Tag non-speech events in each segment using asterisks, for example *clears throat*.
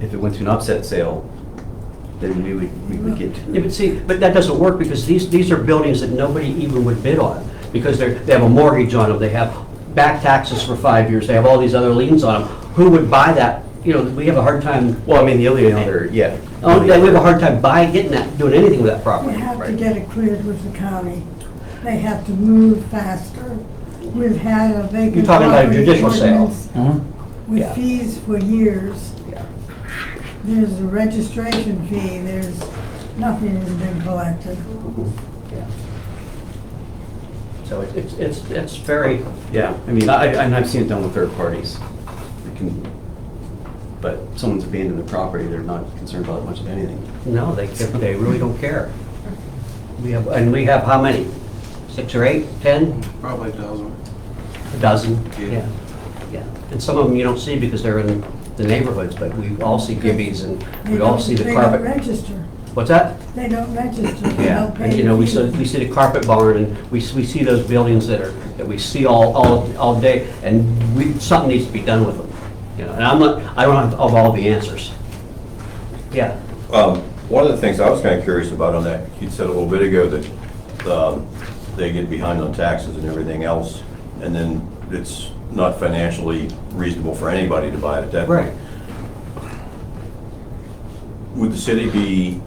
if it went to an upset sale, then we would, we would get. Yeah, but see, but that doesn't work because these, these are buildings that nobody even would bid on because they're, they have a mortgage on them, they have back taxes for five years, they have all these other liens on them. Who would buy that? You know, we have a hard time, Well, I mean, the only other, yeah. oh, yeah, we have a hard time buying, getting that, doing anything with that We property. have to Right. get it cleared with the county. They have to move faster. We've had a vacant. You're talking about a property judicial sale. ordinance Uh-huh. Yeah. With fees for years. Yeah. There's a registration fee, there's, nothing has been collected. Yeah. So it- it's, it's, it's very, Yeah, I mean, I, I- and I've seen it done with third parties. It can, but someone's abandoned the property, they're not concerned about much of anything. no, they, they really don't care. We have, and we have how many? Six or eight, 10? Probably a dozen. A dozen, Yeah. yeah, yeah. And some of them you don't see because they're in the neighborhoods, but we all see gibbies and They we all don't- see the They don't carpet. register. What's that? They don't register. They Yeah, don't and pay. you know, we the see, fee. we see the carpet barn and we, s- we see those buildings that are, that we see all, all, all day and we, something needs to be done with them. You know, and I'm not, I don't have of all the answers. Yeah, Um, One of the things I was kind of curious about on that, you said a little bit ago that um, they get behind on taxes and everything else, and then it's not financially reasonable for anybody to buy it at that right. point. Would the city be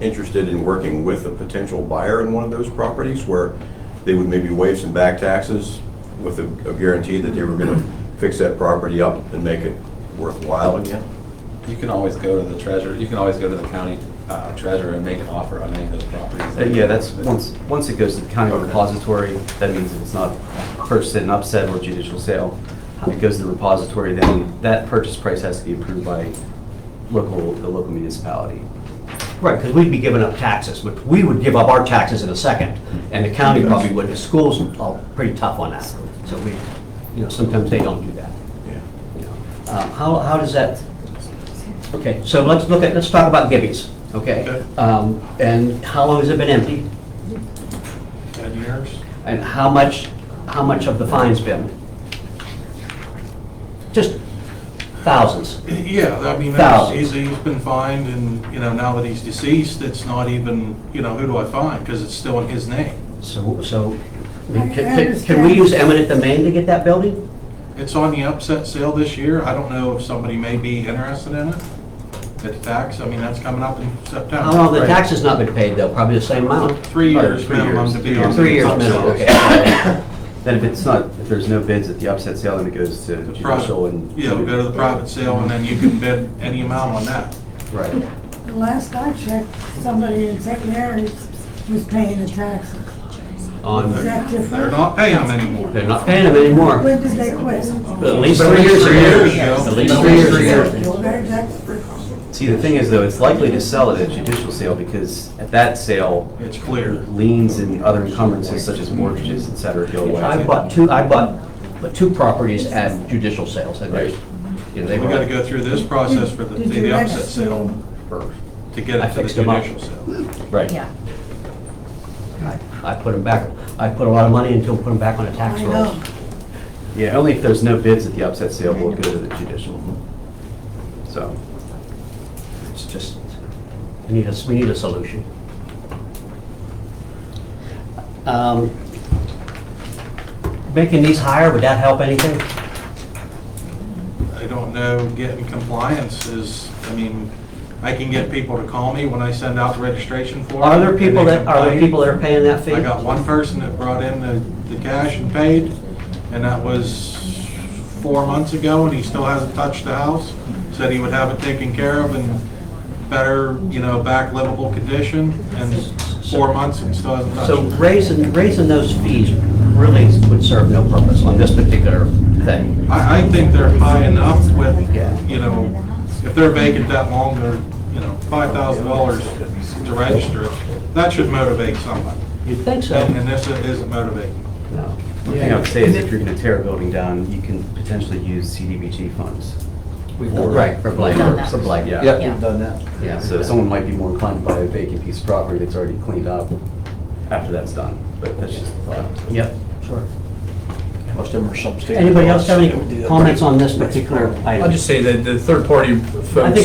interested in working with a potential buyer in one of those properties where they would maybe waive some back taxes with a a guarantee that they were going to fix that property up and make it worthwhile again? You can always go to the treasurer, you can always go to the county uh, treasurer and make an offer on any of those properties. Uh, Yeah, that's, once, once it goes to the county repository, that means it's not purchased at an upset or judicial sale. It goes to the repository, then that purchase price has to be approved by local, the local municipality. Right, because we'd be giving up taxes, but we would give up our taxes in a second, and the county probably would, the schools are pretty tough on that. So we, you know, sometimes they don't do that. Yeah. you know. Um, How, how does that, okay, so let's look at, let's talk about Gibby's, okay? Um, And how long has it been empty? Ten years? And how much, how much of the fine's been? Just thousands. *clears throat* Yeah, I mean, that's- he's, he's been fined and, you know, now that he's deceased, it's not even, you know, who do I find? Because it's still in his name. So, so, I- I can- can can we understand. use eminent domain to get that building? It's on the upset sale this year. I don't know if somebody may be interested in it. It's tax, I mean, that's coming up in September. How long Oh, the tax has not been paid, though? Probably the same amount. Three Or years three minimum to years, be on. Three years the minimum, upset. okay. Then if it's not, if there's no bids at the upset sale, then it goes to The judicial and. private, yeah, we go to the private sale and then you can bid any amount on that. Right. The Last I checked, somebody in St. Mary's was paying the taxes. On, Is that different? They're not paying them anymore. they're not paying them anymore. When did they quit? At least three years ago. At least three years ago. Very different. See, the thing is though, it's likely to sell at a judicial sale because at that sale, It's clear. liens and other encumbrances such as mortgages, et cetera, go away. I bought two, I bought but two properties at judicial sales, and there's, you know, We they were. gotta go through this process for the, Did you the upset register sale them? first, to get I it to the fixed them up. judicial sale. Right. Yeah. I I put them back, I put a lot of money into them, put them back on the tax I rolls. know. Yeah, only if there's no bids at the upset sale will it go to the judicial. So, It's just, we need a, we need a solution. Um, Making these higher, would that help anything? I don't know, getting compliance is, I mean, I can get people to call me when I send out the registration form. Are there people and they that, are there complain. people that are paying that fee? I got one person that brought in the, the cash and paid, and that was four months ago, and he still hasn't touched the house. Said he would have it taken care of in better, you know, back livable condition, and four months and still hasn't touched So it. raising, raising those fees really would serve no purpose on this particular thing. I, I think they're high enough with, Yeah. you know, if they're vacant that long, they're, you know, five thousand dollars to register it. That should motivate somebody, You'd think so. and and this isn't motivating. No. the thing I would say is if you're gonna tear a building down, you can potentially use CDBG funds. We've done- Right, for blight, Done that. for blight, yeah. Yeah. We've done that. Yeah. So someone might be more inclined to buy a vacant piece of property that's already cleaned up after that's done, but that's just a thought. Yep, sure. Most of them are substandard. Anybody else have They would do any that. comments on this particular item? I'll just say that the third-party I folks think